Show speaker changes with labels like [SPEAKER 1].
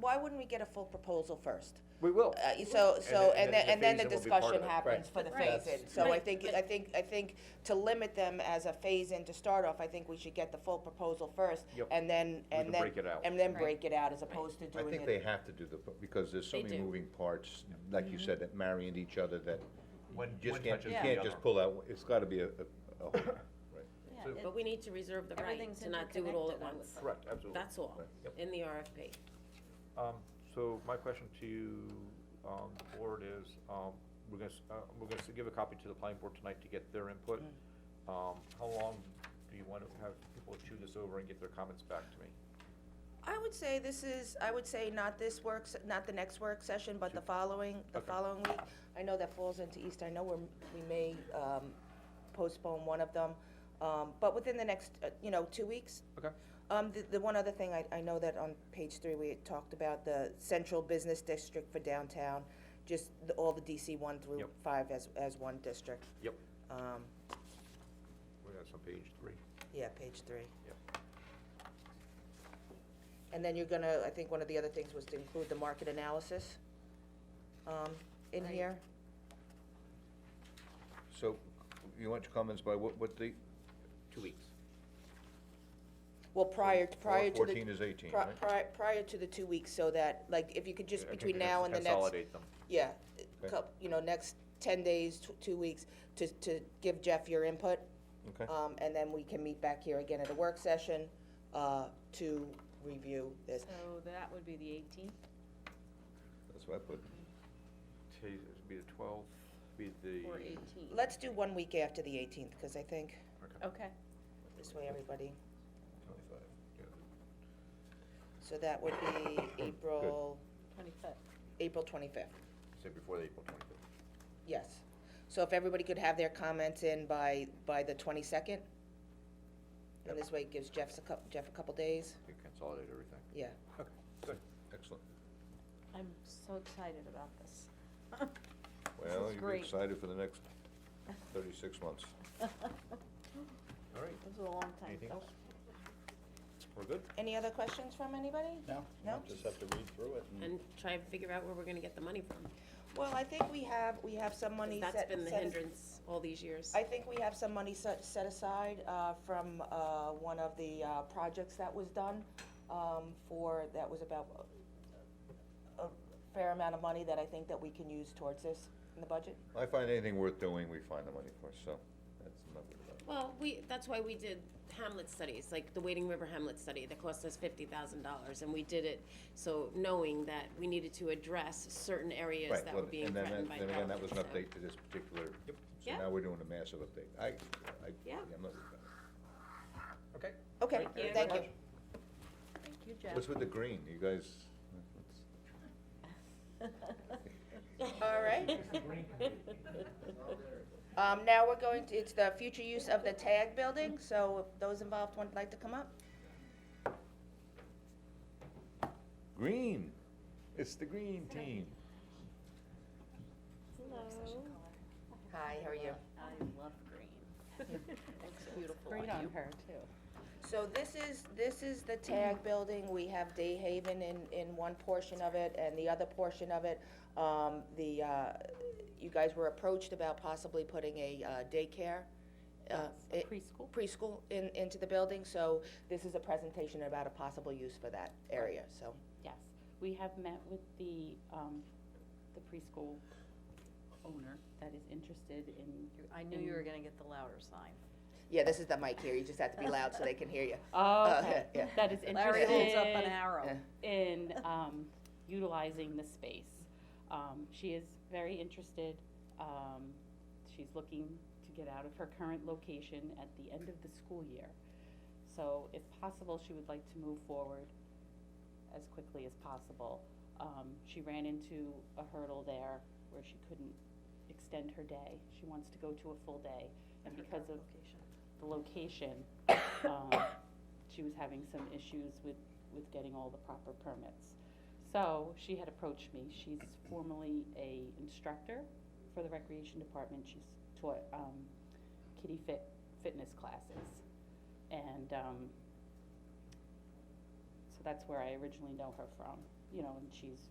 [SPEAKER 1] why wouldn't we get a full proposal first?
[SPEAKER 2] We will.
[SPEAKER 1] Uh, So, so, and
[SPEAKER 2] And then-
[SPEAKER 1] then, and
[SPEAKER 2] and then
[SPEAKER 1] then
[SPEAKER 2] the
[SPEAKER 1] the
[SPEAKER 2] phase-in will be part
[SPEAKER 1] discussion
[SPEAKER 2] of it.
[SPEAKER 1] happens for the
[SPEAKER 3] Right.
[SPEAKER 1] phase-in. So I
[SPEAKER 3] Right.
[SPEAKER 1] think, I think, I think to limit them as a phase-in to start off, I think we should get the full proposal first.
[SPEAKER 2] Yep.
[SPEAKER 1] And then,
[SPEAKER 2] We
[SPEAKER 1] and
[SPEAKER 2] can
[SPEAKER 1] then.
[SPEAKER 2] break it out.
[SPEAKER 1] And then
[SPEAKER 3] Right.
[SPEAKER 1] break it out as opposed to
[SPEAKER 4] I
[SPEAKER 1] doing
[SPEAKER 4] think they
[SPEAKER 1] it.
[SPEAKER 4] have to do the, because there's so
[SPEAKER 3] They
[SPEAKER 4] many
[SPEAKER 3] do.
[SPEAKER 4] moving parts, like
[SPEAKER 1] Mm-hmm.
[SPEAKER 4] you said, that marry into each other that
[SPEAKER 2] One-
[SPEAKER 4] you
[SPEAKER 2] one
[SPEAKER 4] just can't,
[SPEAKER 2] touches
[SPEAKER 4] you
[SPEAKER 3] the
[SPEAKER 4] can't
[SPEAKER 2] other.
[SPEAKER 4] just pull out, it's gotta be a, a a whole, right.
[SPEAKER 2] So-
[SPEAKER 3] it-
[SPEAKER 5] But we need to reserve the right
[SPEAKER 3] Everything's
[SPEAKER 5] to not do it all at
[SPEAKER 3] interconnected, I would
[SPEAKER 5] once.
[SPEAKER 3] think.
[SPEAKER 2] Correct, absolutely.
[SPEAKER 5] That's all,
[SPEAKER 2] Yep.
[SPEAKER 5] in the RFP.
[SPEAKER 2] Um, so my question to you, um, the board is, um, we're gonna, s- uh, we're gonna s- give a copy to the planning board tonight to get their input.
[SPEAKER 1] Mm.
[SPEAKER 2] Um, how long do you wanna have people chew this over and get their comments back to me?
[SPEAKER 1] I would say this is, I would say not this works, not the next work session, but the following, the
[SPEAKER 2] Okay.
[SPEAKER 1] following week. I know that falls into East, I know we're, we may, um, postpone one of them, um, but within the next, uh, you know, two weeks,
[SPEAKER 2] Okay,
[SPEAKER 1] Um, the, the one other thing, I, I know that on page three, we had talked about the central business district for downtown, just the, all the DC one through
[SPEAKER 2] Yep.
[SPEAKER 1] five as, as one district.
[SPEAKER 2] yep,
[SPEAKER 1] Um,
[SPEAKER 2] we're on page three,
[SPEAKER 1] yeah, page three.
[SPEAKER 2] yep.
[SPEAKER 1] And then you're gonna, I think one of the other things was to include the market analysis, um, in
[SPEAKER 3] Right.
[SPEAKER 1] here.
[SPEAKER 4] So, you want your comments by what, what date?
[SPEAKER 2] Two weeks.
[SPEAKER 1] Well, prior, prior to the.
[SPEAKER 4] 14 is 18,
[SPEAKER 1] pri-
[SPEAKER 4] right?
[SPEAKER 1] pri- prior to the two weeks, so that, like, if you could just
[SPEAKER 2] I think
[SPEAKER 1] between
[SPEAKER 2] it has
[SPEAKER 1] now
[SPEAKER 2] to
[SPEAKER 1] and the next.
[SPEAKER 2] Consolidate them.
[SPEAKER 1] Yeah,
[SPEAKER 4] Okay.
[SPEAKER 1] coup you know, next ten days, tw- two weeks, to, to give Jeff your input.
[SPEAKER 4] Okay.
[SPEAKER 1] Um, and then we can meet back here again at a work session, uh, to review this.
[SPEAKER 3] So that would be the eighteenth.
[SPEAKER 4] That's what I put.
[SPEAKER 2] Today's, it'd be the twelfth, be the.
[SPEAKER 3] Or eighteenth.
[SPEAKER 1] Let's do one week after the eighteenth, cause I think
[SPEAKER 2] Okay.
[SPEAKER 3] Okay,
[SPEAKER 1] this way everybody,
[SPEAKER 4] Twenty-five.
[SPEAKER 1] so that would be April,
[SPEAKER 3] twenty-fifth.
[SPEAKER 1] April twenty-fifth,
[SPEAKER 2] Say before the April twenty-fifth.
[SPEAKER 1] yes. So if everybody could have their comments in by, by the twenty-second? And this way it gives Jeff's a cou- Jeff a couple days,
[SPEAKER 2] You consolidate everything.
[SPEAKER 1] yeah.
[SPEAKER 2] Okay, good.
[SPEAKER 4] Excellent.
[SPEAKER 3] I'm so excited about this.
[SPEAKER 4] Well,
[SPEAKER 3] is
[SPEAKER 4] you're
[SPEAKER 3] great.
[SPEAKER 4] excited for the next thirty-six months.
[SPEAKER 2] All right,
[SPEAKER 3] This is a long time
[SPEAKER 2] anything
[SPEAKER 3] coming.
[SPEAKER 2] else? We're good?
[SPEAKER 1] Any other questions from anybody?
[SPEAKER 6] No?
[SPEAKER 1] No?
[SPEAKER 6] Just have to read through it and.
[SPEAKER 5] And try and figure out where we're gonna get the money from. 'cause
[SPEAKER 1] Well, I think we have, we have some money set.
[SPEAKER 5] That's been the
[SPEAKER 1] set-
[SPEAKER 5] hindrance all these years.
[SPEAKER 1] I think we have some money set, set aside, uh, from, uh, one of the, uh, projects that was done, um, for, that was about a a fair amount of money that I think that we can use towards this in the budget.
[SPEAKER 4] I find anything worth doing, we find the money for, so, that's not what about.
[SPEAKER 5] Well, we, that's why we did Hamlet studies, like the Wading River Hamlet study that cost us fifty thousand dollars, and we did it so knowing that we needed to address certain areas
[SPEAKER 4] Right,
[SPEAKER 5] that
[SPEAKER 4] well,
[SPEAKER 5] were being
[SPEAKER 4] and then that-
[SPEAKER 5] threatened by
[SPEAKER 4] Then again, that
[SPEAKER 5] development,
[SPEAKER 4] was an
[SPEAKER 5] so.
[SPEAKER 4] update to this particular, so
[SPEAKER 5] Yeah.
[SPEAKER 4] now we're doing a massive update. I, I,
[SPEAKER 5] Yeah.
[SPEAKER 4] I'm not worried about it.
[SPEAKER 2] Okay.
[SPEAKER 1] Okay,
[SPEAKER 5] you.
[SPEAKER 1] thank you.
[SPEAKER 3] Thank you, Jeff.
[SPEAKER 4] What's with the green, you guys?
[SPEAKER 1] All right. Um, now we're going to, it's the future use of the tag building, so if those involved would like to come up.
[SPEAKER 4] Green, it's the green team.
[SPEAKER 3] Hello.
[SPEAKER 1] Hi, how are you?
[SPEAKER 3] I love green. Looks beautiful. Green on her, too. Mm.
[SPEAKER 1] So this is, this is the tag building, we have Day Haven in, in one portion of it, and the other portion of it, um, the, uh, you guys were approached about possibly putting a uh, daycare, uh, i-
[SPEAKER 3] Preschool.
[SPEAKER 1] preschool in, into the building, so this is a presentation about a possible use for that area, so.
[SPEAKER 7] Yes, we have met with the, um, the preschool owner that is interested in.
[SPEAKER 3] I knew you were gonna get the louder sign.
[SPEAKER 1] Yeah, this is the mic here, you just have to be loud so they can hear you.
[SPEAKER 7] Oh,
[SPEAKER 1] Uh,
[SPEAKER 7] okay.
[SPEAKER 1] yeah.
[SPEAKER 7] that is
[SPEAKER 3] Larry holds up an
[SPEAKER 7] interested
[SPEAKER 3] arrow.
[SPEAKER 1] Yeah.
[SPEAKER 7] in, um, utilizing the space. Um, she is very interested, um, she's looking to get out of her current location at the end of the school year. So if possible, she would like to move forward as quickly as possible. Um, she ran into a hurdle there where she couldn't extend her day. She wants to go to a full day. And because of the location, um, she was having some issues with, with getting all the proper permits. So she had approached me. She's formerly a instructor for the recreation department. She's taught, um, kitty fit, fitness classes. And, um, so that's where I originally know her from. you know, and she's